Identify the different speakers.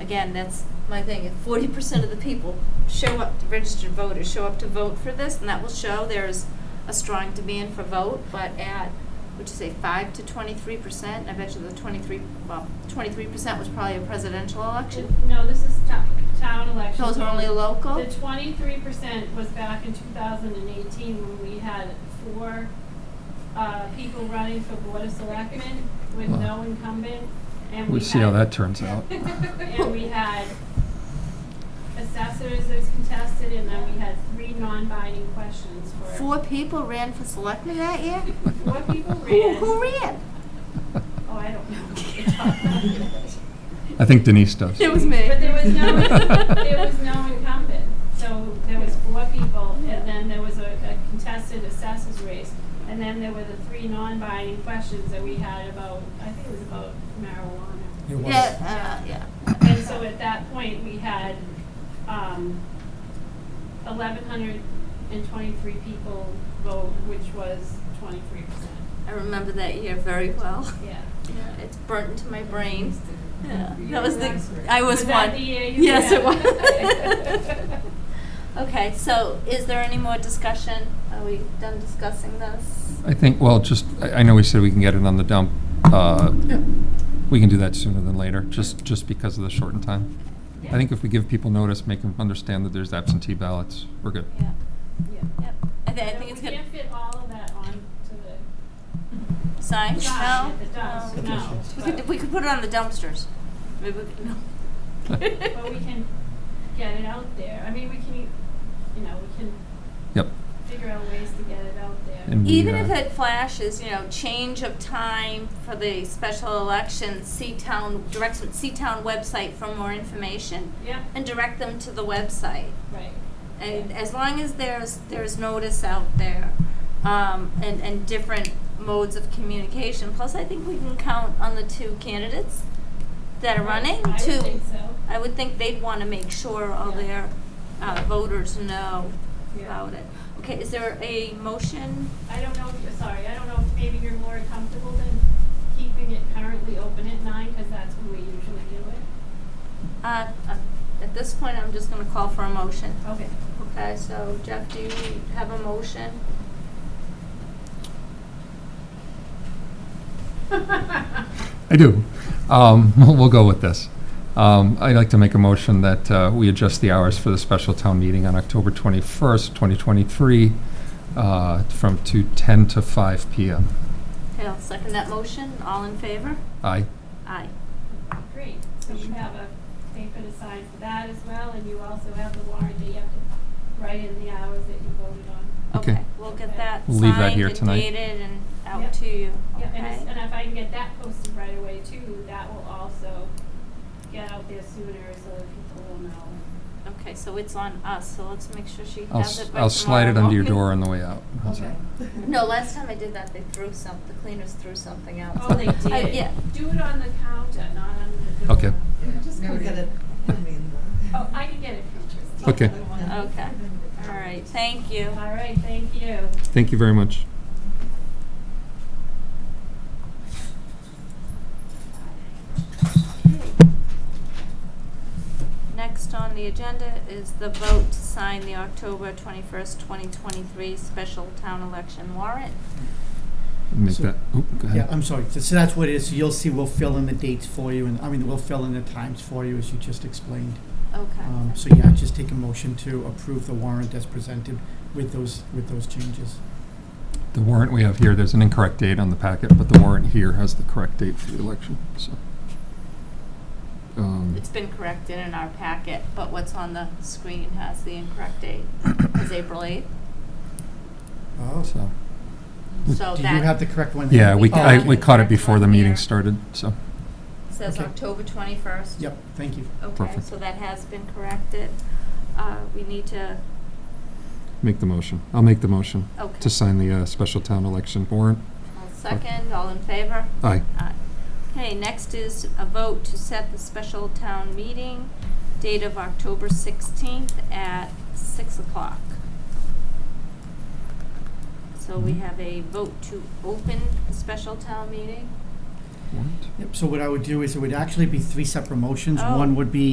Speaker 1: again, that's my thing, if forty percent of the people show up, registered voters, show up to vote for this, and that will show there's a strong demand for vote, but at, would you say, five to twenty-three percent, I bet you the twenty-three, well, twenty-three percent was probably a presidential election.
Speaker 2: No, this is town, town election.
Speaker 1: Those are Oh, only local?
Speaker 2: The twenty-three percent was back in two thousand and eighteen when we had four, uh, people running for board of selectmen with
Speaker 3: Wow.
Speaker 2: no incumbent, and we
Speaker 3: We'll see how
Speaker 2: had-
Speaker 3: that turns out.
Speaker 2: And we had assessors that was contested, and then we had three non-binding questions for.
Speaker 1: Four people ran for selectmen that year?
Speaker 2: Four people
Speaker 1: Who,
Speaker 2: ran.
Speaker 1: who ran?
Speaker 2: Oh, I don't know.
Speaker 3: I think Denise does.
Speaker 1: It was me.
Speaker 2: But there was no, there was no incumbent, so there was four people, and then there was a a contested assessors race. And then there were the three non-binding questions that we had about, I think it was about marijuana.
Speaker 4: It was.
Speaker 1: Yeah, uh, yeah.
Speaker 2: And so at that point, we had, um, eleven hundred and twenty-three people vote, which was twenty-three percent.
Speaker 1: I remember that year very well.
Speaker 2: Yeah.
Speaker 1: Yeah, It's burnt into my brain. Yeah,
Speaker 2: You
Speaker 1: that was
Speaker 2: were
Speaker 1: the,
Speaker 2: an expert.
Speaker 1: I was
Speaker 2: Was
Speaker 1: one.
Speaker 2: that the year you
Speaker 1: Yes,
Speaker 2: ran?
Speaker 1: it was. Okay, so is there any more discussion? Are we done discussing this?
Speaker 3: I think, well, just, I I know we said we can get it on the dump. uh, We can do that sooner than later, just, just because of the shortened time. I think if we give people notice, make them understand that there's absentee ballots, we're good.
Speaker 1: Yeah,
Speaker 2: Yeah.
Speaker 1: yep. I thi- I
Speaker 2: No,
Speaker 1: think it's
Speaker 2: We
Speaker 1: good.
Speaker 2: can't fit all of that on to
Speaker 1: Sign,
Speaker 2: the
Speaker 1: no?
Speaker 2: side at the dusk,
Speaker 1: No.
Speaker 2: no.
Speaker 1: We could, we could put it on the dumpsters. Maybe, we could- no.
Speaker 2: But but we can get it out there. I mean, we can, you know, we can
Speaker 3: Yep.
Speaker 2: figure out ways to get it out there.
Speaker 3: And-
Speaker 1: Even
Speaker 3: Yeah.
Speaker 1: if it flashes, you know, change of time for the special election, see town, direct them, see town website for more information.
Speaker 2: Yeah,
Speaker 1: And direct them to the website.
Speaker 2: right.
Speaker 1: And as long as there's, there's notice out there, um, and, and different modes of communication. Plus, I think we can count on the two candidates that are running to.
Speaker 2: I would think so.
Speaker 1: I would think they'd wanna make sure all
Speaker 2: Yeah.
Speaker 1: their, uh, voters know
Speaker 2: Yeah.
Speaker 1: about it. Okay, is there a motion?
Speaker 2: I don't know if, you're sorry, I don't know if maybe you're more comfortable than keeping it currently open at nine, because that's when we usually do it.
Speaker 1: Uh, uh, at this point, I'm just gonna call for a motion.
Speaker 2: Okay.
Speaker 1: Okay, so Jeff, do you have a motion?
Speaker 3: I do. Um, We'll go with this. Um, I'd like to make a motion that uh, we adjust the hours for the special town meeting on October 21st, 2023, uh, from to 10 to 5 PM.
Speaker 1: Okay, I'll second that motion. All in favor?
Speaker 3: Aye.
Speaker 1: Aye.
Speaker 2: Great, so you have a paper to sign for that as well, and you also have the warrant that you have to write in the hours that you voted on.
Speaker 3: Okay.
Speaker 1: We'll get that
Speaker 3: We'll leave that
Speaker 1: signed
Speaker 3: here
Speaker 1: and
Speaker 3: tonight.
Speaker 1: dated and out
Speaker 2: Yep.
Speaker 1: to you,
Speaker 2: Yeah, and it's-
Speaker 1: okay?
Speaker 2: and if I can get that posted right away too, that will also get out there sooner so that people will know.
Speaker 1: Okay, so it's on us, so let's make sure she
Speaker 3: I'll
Speaker 1: has
Speaker 3: s-
Speaker 1: it by
Speaker 3: I'll slide it
Speaker 1: tomorrow
Speaker 3: under your
Speaker 1: morning.
Speaker 3: door on the way out. How's that?
Speaker 1: No, last time I did that, they threw some, the cleaners threw something out.
Speaker 2: Oh, they
Speaker 1: I-
Speaker 2: did?
Speaker 1: Uh, Yeah.
Speaker 2: Do it on the counter, not on the door.
Speaker 3: Okay.
Speaker 5: Just come get it. I mean,
Speaker 2: Oh, I can get it from Christine.
Speaker 3: Okay.
Speaker 1: Okay, all right, thank you.
Speaker 2: All right, thank you.
Speaker 3: Thank you very much.
Speaker 1: Next on the agenda is the vote to sign the October twenty-first, twenty twenty-three special town election warrant.
Speaker 3: Make
Speaker 6: So-
Speaker 3: that, oop, go
Speaker 6: Yeah,
Speaker 3: ahead.
Speaker 6: I'm sorry. So- So that's what it is. You'll see, we'll fill in the dates for you, and, I mean, we'll fill in the times for you, as you just explained. Um,
Speaker 1: Okay.
Speaker 6: So yeah, just take a motion to approve the warrant as presented with those, with those changes.
Speaker 3: The warrant we have here, there's an incorrect date on the packet, but the warrant here has the correct date for the election, so. Um,
Speaker 1: It's been corrected in our packet, but what's on the screen has the incorrect date, it's April eighth,
Speaker 6: Oh.
Speaker 3: so-
Speaker 1: so
Speaker 6: Do you have
Speaker 1: Oh, that
Speaker 6: the correct one? Oh,
Speaker 3: Yeah, we,
Speaker 1: We
Speaker 3: I,
Speaker 1: got
Speaker 3: we
Speaker 1: it.
Speaker 3: caught it before the meeting
Speaker 1: Here.
Speaker 3: started, so.
Speaker 1: says
Speaker 6: okay.
Speaker 1: October twenty-first.
Speaker 6: Yep, thank you.
Speaker 1: Okay,
Speaker 3: Perfect.
Speaker 1: so that has been corrected. Uh, we need to,
Speaker 3: Make the motion. I'll make the motion
Speaker 1: okay,
Speaker 3: to sign the uh, special town election warrant.
Speaker 1: I'll second, all in favor?
Speaker 3: Aye.
Speaker 1: Aye. Okay, next is a vote to set the special town meeting date of October sixteenth at six o'clock. So we
Speaker 3: Mhm.
Speaker 1: have a vote to open a special town meeting.
Speaker 3: Warrant?
Speaker 6: Yep, so what I would do is it would actually be three separate motions.
Speaker 1: Oh.
Speaker 6: One would be